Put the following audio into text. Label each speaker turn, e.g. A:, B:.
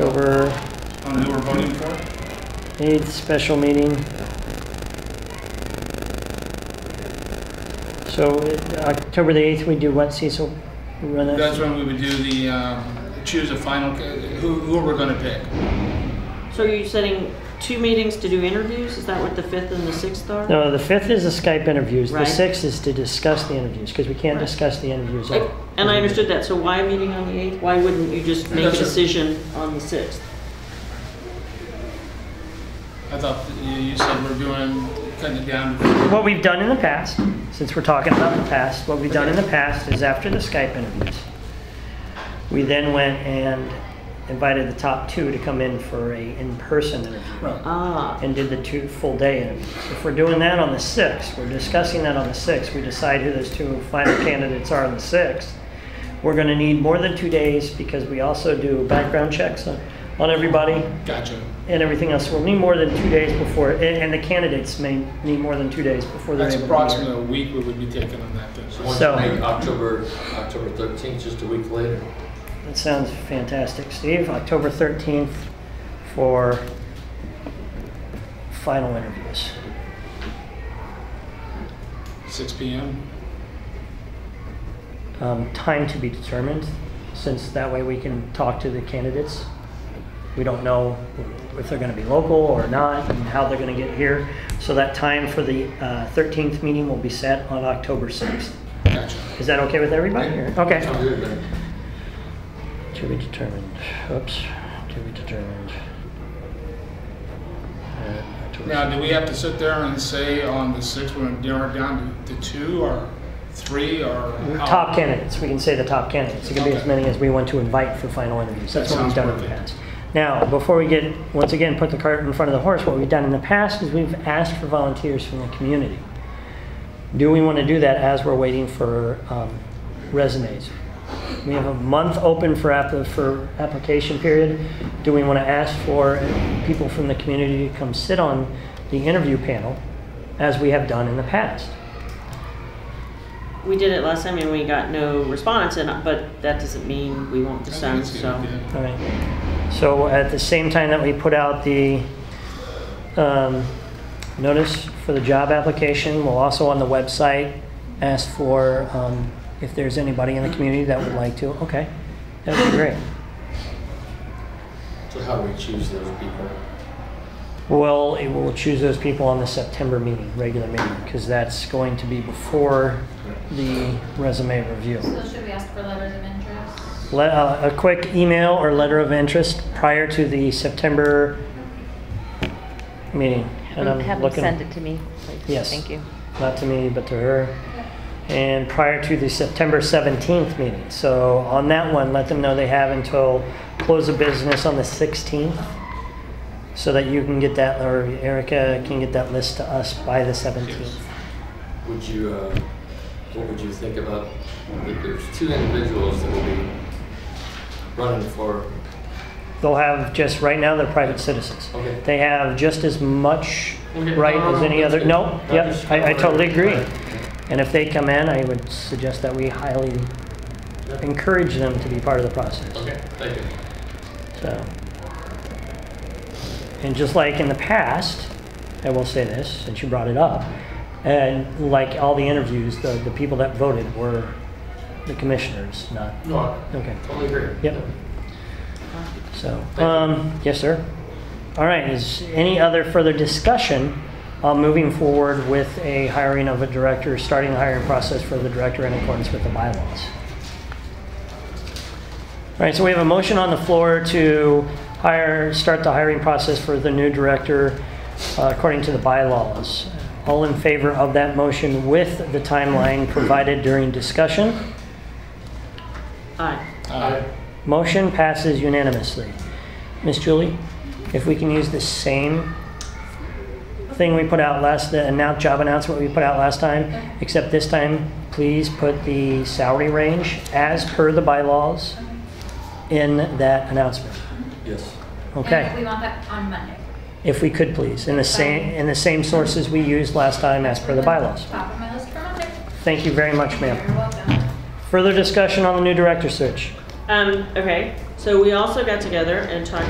A: over,
B: On who we're voting for?
A: needs special meeting. So uh, October the 8th, we do what, Cecil? We Run
B: That's
A: that?
B: when we would do the, um, choose a final, ca- who, who we're gonna pick.
C: So are you setting two meetings to do interviews? Is that what the fifth and the sixth are?
A: No, the 5th is the Skype interviews. The
C: Right.
A: 6th is to discuss the interviews, because we can't
C: Right.
A: discuss the interviews.
C: Like, And I understood that, so why a meeting on the eighth? Why wouldn't you just make a
B: That's it.
C: decision on the sixth?
B: I thought that you, you said we're doing, cutting it down to
A: What we've done in the past, since we're talking about the past, what we've done in the past is after the Skype interviews, we then went and invited the top two to come in for a in-person interview
B: Right.
C: Ah,
A: and did the two full day interviews. If we're doing that on the 6th, we're discussing that on the 6th, we decide who those two final candidates are on the 6th. We're gonna need more than two days because we also do background checks on, on everybody
B: Gotcha.
A: and everything else. We'll need more than two days before, and, and the candidates may need more than two days before they're
B: That's
A: able to be here.
B: approximately a week we would be taking on that. then.
D: So why
A: So-
D: don't you make October, October 13th, just a week later?
A: That sounds fantastic, Steve. October 13th for final interviews.
B: Six P M?
A: Um, Time to be determined, since that way we can talk to the candidates. We don't know if they're going to be local or not and how they're going to get here. So that time for the uh, 13th meeting will be set on October 6th.
B: Gotcha. Oh,
A: Is that okay with everybody? or-
D: Sounds
A: Okay.
D: good, man.
A: To be determined. Oops. To be determined. Uh, October
B: Now, do we have to sit there and say on the sixth, we're gonna narrow it down to, to two or three or? how-
A: Top candidates, we can say the top candidates. It can be as many as we want to invite for final interviews. That's what we've done in the past. Now, before we get, once again, put the cart in front of the horse, what we've done in the past is we've asked for volunteers from the community. Do we want to do that as we're waiting for um, resumes? We have a month open for, app- for application period. Do we want to ask for people from the community to come sit on the interview panel as we have done in the past?
C: we did it last time and we got no response, and, but that doesn't mean we won't
B: I think
C: decide,
B: it's good,
C: so.
B: yeah.
A: All right. So at the same time that we put out the um, notice for the job application, we'll also on the website ask for um, if there's anybody in the community that would like to. Okay, that'd be great.
D: So how do we choose those people?
A: Well, it will choose those people on the September meeting, regular meeting, because that's going to be before the resume review.
E: So should we ask for letters of interest?
A: Let, uh, a quick email or letter of interest prior to the September meeting. And I'm
F: Mm, Have them
A: looking-
F: send it to me, please.
A: Yes.
F: Thank you.
A: not to me, but to her. And prior to the September 17th meeting. So on that one, let them know they have until close of business on the 16th so that you can get that, or Erica can get that list to us by the 17th.
D: Would you, uh, what would you think about, that there's two individuals that will be running for,
A: They'll have just, right now, they're private citizens.
D: Okay.
A: They have just as much
D: Okay.
A: right
D: No, no,
A: as
D: no,
A: any
D: that's
A: other,
D: good.
A: no,
D: No,
A: yep,
D: just-
A: I, I totally agree.
D: Right.
A: And if they come in, I would suggest that we highly encourage them to be part of the process.
D: okay, thank you.
A: So, and just like in the past, I will say this since you brought it up, and like all the interviews, the, the people that voted were the commissioners, not
D: No, I
A: okay.
D: totally agree.
A: Yep. So,
D: Thank you.
A: um, yes, sir. All right. Is any other further discussion on moving forward with a hiring of a director, starting the hiring process for the director in accordance with the bylaws? All right, so we have a motion on the floor to hire, start the hiring process for the new director uh, according to the bylaws. All in favor of that motion with the timeline provided during discussion?
C: Aye.
B: Uh,
A: Motion passes unanimously. Miss Julie, if we can use the same thing we put out last, the annou- job announcement we put out last time, except this time, please put the salary range as per the bylaws in that announcement.
D: Yes.
E: And we
A: Okay?
E: want that on Monday.
A: If we could please, in the same, in the same sources we used last time as per the bylaws.
E: Top of my list for Monday.
A: Thank you very much, ma'am.
E: You're welcome.
A: Further discussion on the new director search?
C: Um, okay, so we also got together and talked